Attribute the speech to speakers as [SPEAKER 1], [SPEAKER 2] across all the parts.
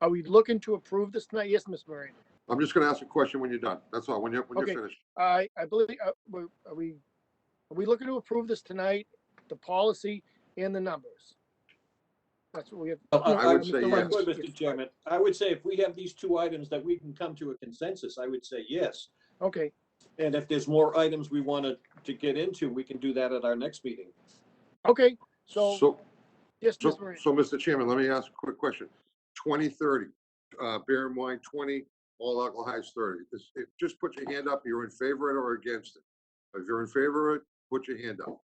[SPEAKER 1] Are we looking to approve this tonight? Yes, Ms. Moran.
[SPEAKER 2] I'm just gonna ask a question when you're done. That's all, when you're, when
[SPEAKER 1] Okay.
[SPEAKER 2] you're finished.
[SPEAKER 1] I, I believe, uh, we're- are we, are we looking to approve this tonight, the policy and the numbers? That's what we have.
[SPEAKER 3] Well, I-
[SPEAKER 1] No,
[SPEAKER 2] Oh, I would
[SPEAKER 1] Mr.
[SPEAKER 2] say
[SPEAKER 1] Lyons,
[SPEAKER 2] yes.
[SPEAKER 3] Wait, Mr. Chairman, I would say if we have these two items that we can come to a consensus, I would say yes.
[SPEAKER 1] Okay,
[SPEAKER 3] And if there's more items we wanted to get into, we can do that at our next meeting.
[SPEAKER 1] okay, so,
[SPEAKER 2] So,
[SPEAKER 1] yes,
[SPEAKER 2] so,
[SPEAKER 1] Ms. Moran.
[SPEAKER 2] so, Mr. Chairman, let me ask a quick question. Twenty thirty, uh, beer and wine twenty, all alcohol is thirty. This- it- Just put your hand up, you're in favor of it or against it. If you're in favor of it, put your hand up.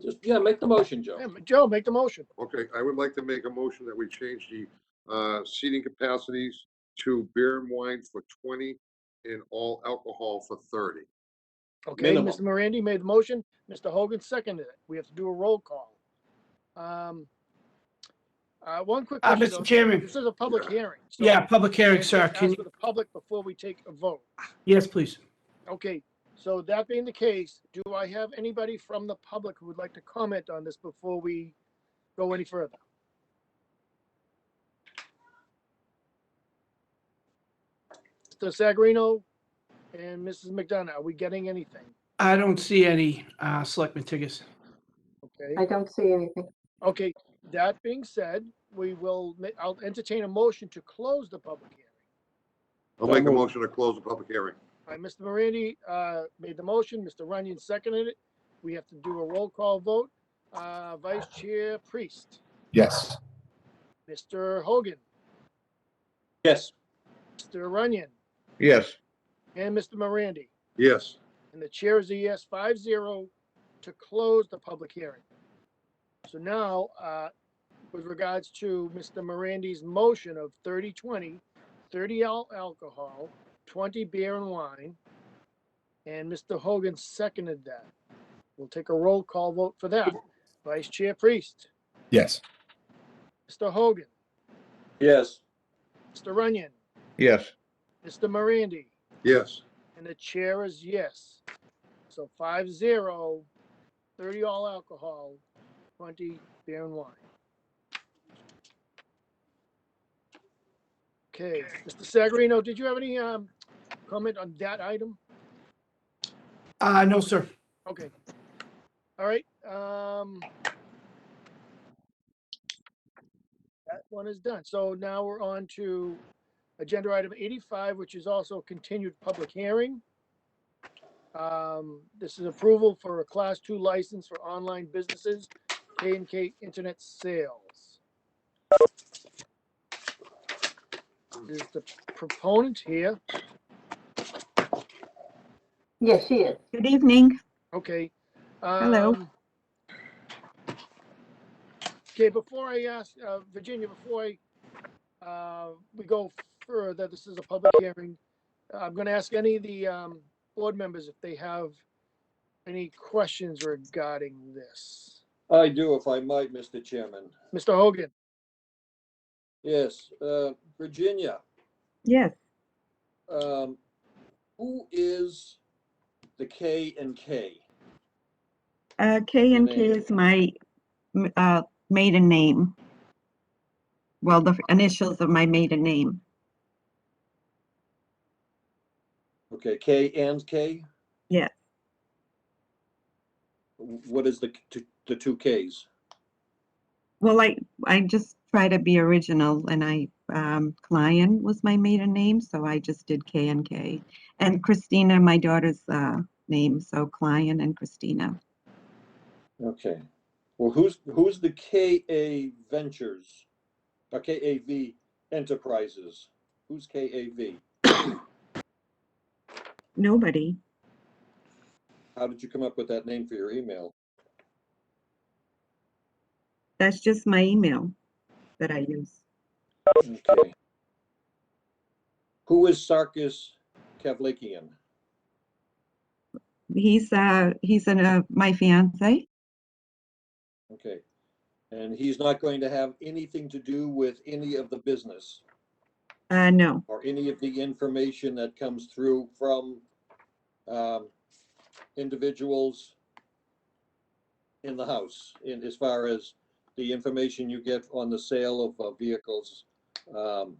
[SPEAKER 3] Just, yeah, make the motion, Joe.
[SPEAKER 1] Yeah, Joe, make the motion.
[SPEAKER 2] Okay, I would like to make a motion that we change the, uh, seating capacities to beer and wine for twenty and all alcohol for thirty.
[SPEAKER 1] Okay,
[SPEAKER 3] Minimum.
[SPEAKER 1] Mr. Morandi made the motion. Mr. Hogan seconded it. We have to do a roll call. Um, uh, one quick
[SPEAKER 4] Uh,
[SPEAKER 1] question.
[SPEAKER 4] Mr.
[SPEAKER 1] though.
[SPEAKER 4] Chairman,
[SPEAKER 1] This is a public hearing. so
[SPEAKER 4] yeah, public hearing,
[SPEAKER 1] let's
[SPEAKER 4] sir.
[SPEAKER 1] ask
[SPEAKER 4] Can,
[SPEAKER 1] for the public before we take a vote.
[SPEAKER 4] yes, please.
[SPEAKER 1] Okay, so that being the case, do I have anybody from the public who would like to comment on this before we go any further? Mr. Sagarino and Mrs. McDonough, are we getting anything?
[SPEAKER 4] I don't see any, uh, Selectman Tigges.
[SPEAKER 1] Okay,
[SPEAKER 5] I don't see anything.
[SPEAKER 1] okay, that being said, we will, ma- I'll entertain a motion to close the public hearing.
[SPEAKER 2] I'll make a motion to close the public hearing.
[SPEAKER 1] All right, Mr. Morandi, uh, made the motion, Mr. Runyon seconded it. We have to do a roll call vote. Uh, Vice Chair Priest,
[SPEAKER 6] Yes.
[SPEAKER 1] Mr. Hogan,
[SPEAKER 3] Yes,
[SPEAKER 1] Mr. Runyon,
[SPEAKER 6] Yes.
[SPEAKER 1] and Mr. Morandi.
[SPEAKER 2] Yes,
[SPEAKER 1] And the chair is a yes, five zero, to close the public hearing. So now, uh, with regards to Mr. Morandi's motion of 30 20, 30 al- alcohol, twenty beer and wine, and Mr. Hogan seconded that. We'll take a roll call vote for that. Vice Chair Priest,
[SPEAKER 6] Yes.
[SPEAKER 1] Mr. Hogan,
[SPEAKER 3] yes.
[SPEAKER 1] Mr. Runyon,
[SPEAKER 6] Yes.
[SPEAKER 1] Mr. Morandi,
[SPEAKER 2] yes.
[SPEAKER 1] And the chair is yes. So five zero, thirty all alcohol, twenty beer and wine. Okay, Mr. Sagarino, did you have any um comment on that item?
[SPEAKER 4] Uh, no, sir.
[SPEAKER 1] Okay. All right, um. That one is done. So now we're on to agenda item eighty-five, which is also a continued public hearing. Um, this is approval for a class two license for online businesses, K and K Internet Sales. Is the proponent here?
[SPEAKER 5] Yes, she is.
[SPEAKER 7] Good evening.
[SPEAKER 1] Okay.
[SPEAKER 7] Hello.
[SPEAKER 1] um, Okay, before I ask, uh, Virginia, before I, uh, we go further, this is a public hearing. I'm gonna ask any of the, um, board members if they have any questions regarding this.
[SPEAKER 3] I do if I might, Mr. Chairman.
[SPEAKER 1] Mr. Hogan,
[SPEAKER 3] Yes, uh, Virginia,
[SPEAKER 7] Yes,
[SPEAKER 3] um, who is the K and K?
[SPEAKER 7] uh, K and K
[SPEAKER 3] Maiden.
[SPEAKER 7] is my m- uh, maiden name. Well, the f- initials of my maiden name.
[SPEAKER 3] Okay, K and K?
[SPEAKER 7] Yes.
[SPEAKER 3] Wh- What is the, t- the two Ks?
[SPEAKER 7] Well, I I just try to be original, and I um, Klein was my maiden name, so I just did K and K, and Christina, my daughter's uh, name, so Klein and Christina.
[SPEAKER 3] Okay. Well, who's, who's the KA Ventures? uh, Or KAV Enterprises? Who's KAV?
[SPEAKER 7] Nobody.
[SPEAKER 3] How did you come up with that name for your email?
[SPEAKER 7] That's just my email that I use.
[SPEAKER 3] Okay. Who is Sarkis Kavlikian?
[SPEAKER 7] He's uh he's in uh my fiance.
[SPEAKER 3] Okay. And he's not going to have anything to do with any of the business
[SPEAKER 7] Uh, no.
[SPEAKER 3] or any of the information that comes through from um, individuals in the house, in as far as the information you get on the sale of uh, vehicles, um,